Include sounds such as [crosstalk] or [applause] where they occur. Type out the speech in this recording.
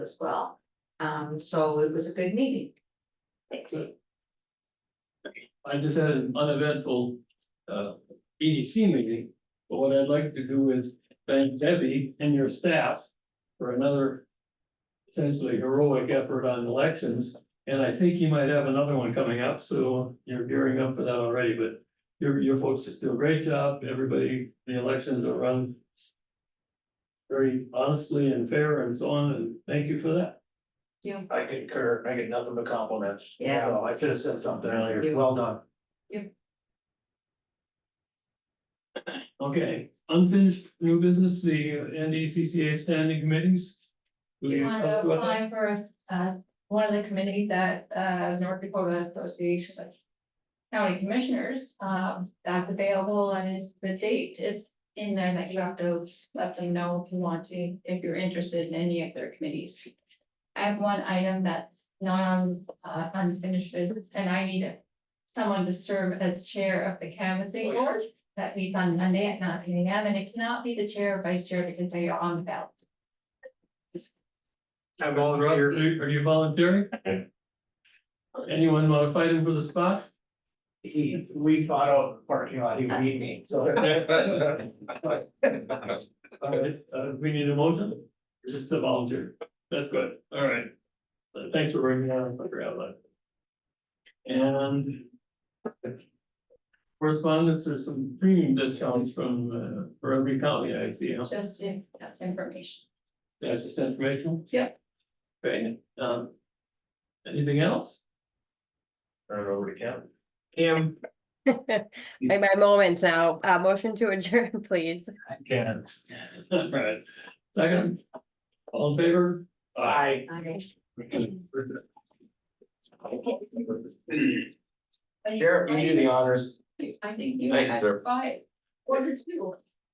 as well. Um, so it was a good meeting. I just had an uneventful uh EDC meeting, but what I'd like to do is thank Debbie and your staff for another essentially heroic effort on elections, and I think you might have another one coming up, so you're gearing up for that already, but your your folks just do a great job, everybody, the elections are run very honestly and fair and so on, and thank you for that. You, I concur, I get nothing but compliments. Yeah. No, I should have said something earlier, You- well done. Okay, unfinished new business, the NDCCA standing committees. Will You talk wanna about that? apply for uh, one of the committees at, uh, North Dakota Association of County Commissioners, um, that's available and the date is in there that you have to let them know if you want to, if you're interested in any of their committees. I have one item that's not on, uh, unfinished business and I need a- someone to serve as chair of the canvassing board that meets on Monday at nine AM and it cannot be the chair or vice chair because they are on the ballot. I Rob, Are you are you volunteering? Anyone want to fight him for the spot? He, we thought out the parking lot, he would Uh, need me, so. All right, uh, we need a motion, just a volunteer, that's good, all right. Uh, Thanks for bringing that up, figure out that. And. Correspondence, there's some premium discounts from, uh, for every county I see, huh? Just if that's information. that's just informational? Yep. Okay, um. Anything else? Turn it over to Kim. Kim. My, my moment now, uh, motion to adjourn, [laughs] please. I can't. [laughs] All right, second, all in favor? Bye. [laughs] Sheriff, you do the honors. I think you Thank you, had sir. five, order two.